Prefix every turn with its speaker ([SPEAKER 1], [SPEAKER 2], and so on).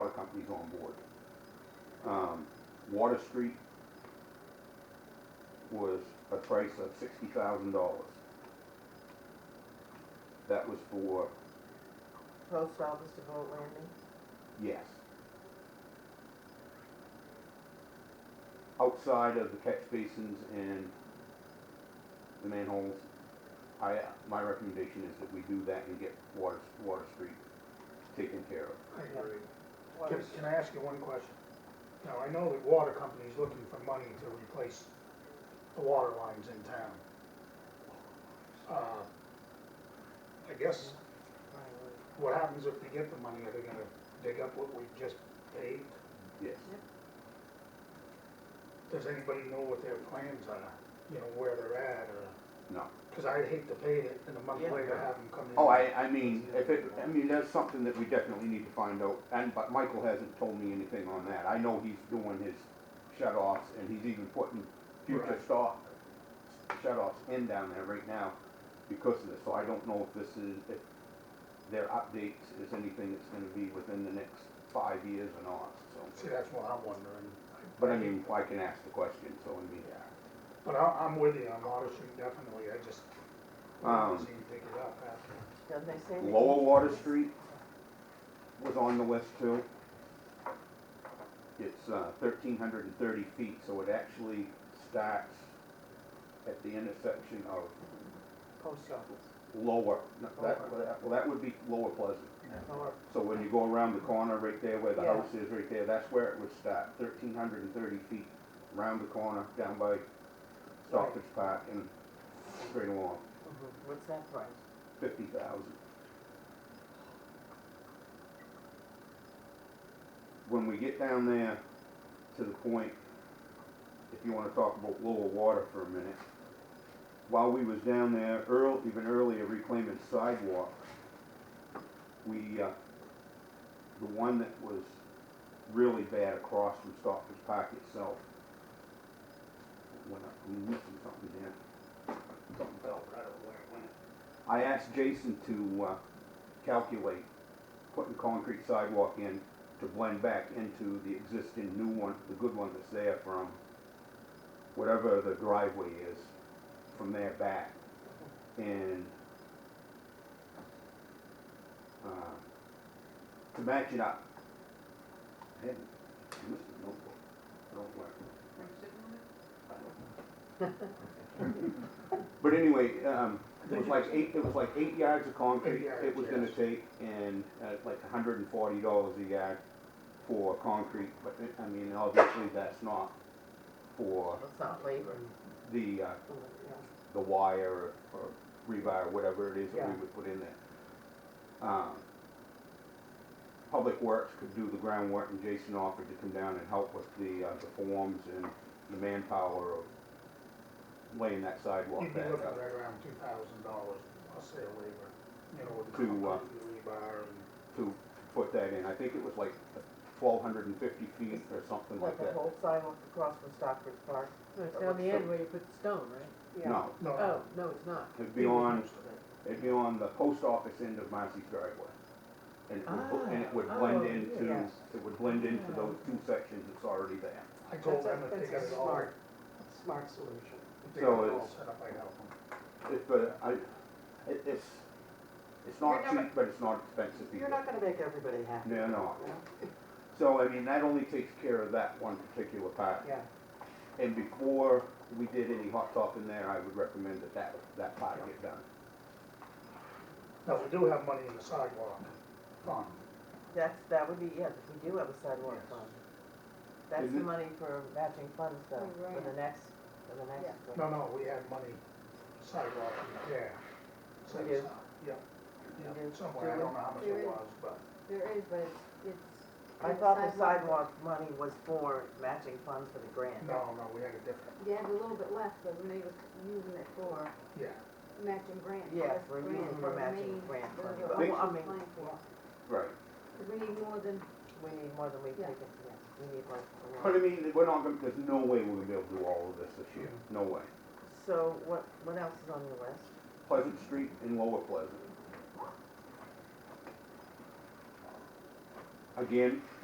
[SPEAKER 1] on board. Um, Water Street was a price of sixty thousand dollars. That was for,
[SPEAKER 2] Post office to vote landing.
[SPEAKER 1] yes. Outside of the catch basins and the manholes, I, my recommendation is that we do that and get Water, Water Street taken care of.
[SPEAKER 3] I agree. Can, can I ask you one question? Now, I know that water company's looking for money to replace the water lines in town. Uh, I guess what happens if they get the money? Are they gonna dig up what we just paid?
[SPEAKER 1] Yes.
[SPEAKER 3] Does anybody know what their plans are? You know, where they're at or?
[SPEAKER 1] No.
[SPEAKER 3] Cause I'd hate to pay it and a month
[SPEAKER 2] Yeah.
[SPEAKER 3] later have them come in.
[SPEAKER 1] Oh, I, I mean, if it, I mean, that's something that we definitely need to find out, and, but Michael hasn't told me anything on that. I know he's doing his shut-offs, and he's even putting future
[SPEAKER 3] Right.
[SPEAKER 1] stock shut-offs in down there right now because of this, so I don't know if this is, if their updates is anything that's gonna be within the next five years or not, so.
[SPEAKER 3] See, that's what I'm wondering.
[SPEAKER 1] But I mean, I can ask the question, so I mean,
[SPEAKER 3] But I, I'm with you on Water Street, definitely, I just,
[SPEAKER 1] Um,
[SPEAKER 3] I see you dig it up after.
[SPEAKER 2] Doesn't they say? they
[SPEAKER 1] Lower
[SPEAKER 2] can-
[SPEAKER 1] Water Street was on the list too. It's uh, thirteen hundred and thirty feet, so it actually starts at the intersection of
[SPEAKER 2] Post office.
[SPEAKER 1] Lower, no, that, well, that would be Lower Pleasant.
[SPEAKER 2] Or
[SPEAKER 1] So when you go around the corner right there where the
[SPEAKER 2] Yeah.
[SPEAKER 1] house is right there, that's where it would start, thirteen hundred and thirty feet, around the corner, down by Stockbridge Park and straight along,
[SPEAKER 2] Mhm. What's that price?
[SPEAKER 1] fifty thousand. when we get down there to the point, if you wanna talk about lower water for a minute, while we was down there earl, even earlier reclaiming sidewalks, we, uh, the one that was really bad across from Stockbridge Park itself, went up, I'm missing something here. Something fell, I don't know where it went. I asked Jason to, uh, calculate putting concrete sidewalk in to blend back into the existing new one, the good one that's there from whatever the driveway is, from there back. And, uh, to match it up, I had, I missed a notebook, I don't know where. But anyway, um, it was like eight, it was like eight yards of concrete
[SPEAKER 3] Eight yards,
[SPEAKER 1] it was gonna
[SPEAKER 3] yes.
[SPEAKER 1] take and, uh, like hundred and forty dollars a yard for concrete, but it- I mean, obviously that's not for
[SPEAKER 2] It's not labor. Mm-hmm.
[SPEAKER 1] the, uh,
[SPEAKER 2] Yeah.
[SPEAKER 1] the wire or rebar, whatever it is that we
[SPEAKER 2] Yeah.
[SPEAKER 1] would put in there. Um, Public Works could do the groundwork and Jason offered to come down and help with the, uh, the forms and the manpower of laying that uh, sidewalk
[SPEAKER 3] You'd be
[SPEAKER 1] back
[SPEAKER 3] looking
[SPEAKER 1] up.
[SPEAKER 3] right around two thousand dollars, I'll say a labor, you know, with
[SPEAKER 1] To,
[SPEAKER 3] the
[SPEAKER 1] uh,
[SPEAKER 3] concrete, the rebar and.
[SPEAKER 1] to put that in. I think it was like twelve hundred and fifty feet or something like
[SPEAKER 2] Like the
[SPEAKER 1] that.
[SPEAKER 2] whole sidewalk across from Stockbridge Park.
[SPEAKER 4] No, it's down the end where you put the stone, right?
[SPEAKER 2] Yeah.
[SPEAKER 1] No,
[SPEAKER 3] No,
[SPEAKER 4] Oh, no, it's not.
[SPEAKER 1] it'd be on,
[SPEAKER 3] most of it.
[SPEAKER 1] it'd be on the post office end of Marcy's driveway. And it would, bl- and it would
[SPEAKER 4] Ah,
[SPEAKER 1] blend
[SPEAKER 4] oh,
[SPEAKER 1] into,
[SPEAKER 2] yes.
[SPEAKER 1] it would blend into those two sections that's already there.
[SPEAKER 3] I told them if they
[SPEAKER 5] That's a-
[SPEAKER 3] got
[SPEAKER 5] that's
[SPEAKER 3] it
[SPEAKER 5] a
[SPEAKER 3] all,
[SPEAKER 5] smart, smart solution.
[SPEAKER 3] if they
[SPEAKER 1] So
[SPEAKER 3] got it all
[SPEAKER 1] it's-
[SPEAKER 3] set up, I'd help them.
[SPEAKER 1] It, but I, it, it's, it's not
[SPEAKER 5] You're never-
[SPEAKER 1] cheap, but it's not expensive either.
[SPEAKER 5] You're not gonna make everybody happy.
[SPEAKER 1] No, no.
[SPEAKER 5] you know?
[SPEAKER 1] So, I mean, that only takes care of that one particular part.
[SPEAKER 5] Yeah,
[SPEAKER 1] And before we did any hot top in there, I would recommend that that, that part get done.
[SPEAKER 3] Now, we do have money in the sidewalk fund,
[SPEAKER 2] That's, that would be, yes, we do have a sidewalk
[SPEAKER 3] Yes.
[SPEAKER 2] fund. That's the
[SPEAKER 1] Isn't-
[SPEAKER 2] money for matching funds though,
[SPEAKER 4] Oh,
[SPEAKER 2] for
[SPEAKER 4] right.
[SPEAKER 2] the next, for the next.
[SPEAKER 3] no, no, we have money sidewalk repair. set
[SPEAKER 2] We do.
[SPEAKER 3] aside. Yep,
[SPEAKER 2] We do.
[SPEAKER 3] yep,
[SPEAKER 2] Do
[SPEAKER 3] somewhere, I
[SPEAKER 2] we-
[SPEAKER 3] don't know how much
[SPEAKER 4] do
[SPEAKER 3] it
[SPEAKER 4] we-
[SPEAKER 3] was, but.
[SPEAKER 4] There is, but it's, it's.
[SPEAKER 2] I thought the sidewalk money was for matching funds for the grant.
[SPEAKER 3] No, no, we had a different,
[SPEAKER 6] You had a little bit left, but when they was using it for
[SPEAKER 3] yeah.
[SPEAKER 6] matching grants.
[SPEAKER 2] Yes,
[SPEAKER 6] that's
[SPEAKER 2] we're
[SPEAKER 6] grant
[SPEAKER 2] using for
[SPEAKER 6] the
[SPEAKER 2] matching
[SPEAKER 6] main-
[SPEAKER 2] grant
[SPEAKER 6] the-
[SPEAKER 2] money,
[SPEAKER 6] the
[SPEAKER 2] but
[SPEAKER 6] what
[SPEAKER 2] I
[SPEAKER 6] she's
[SPEAKER 2] mean-
[SPEAKER 6] applying for.
[SPEAKER 1] Right.
[SPEAKER 6] 'Cause we need more than,
[SPEAKER 2] We need more than we
[SPEAKER 6] Yeah.
[SPEAKER 2] take in, yes, we need like a
[SPEAKER 1] But I
[SPEAKER 2] lot.
[SPEAKER 1] mean, we're not gonna, there's no way we're gonna be able to do all of this this year, no way.
[SPEAKER 2] So what, what else is on your list?
[SPEAKER 1] Pleasant Street and Lower Pleasant. Again,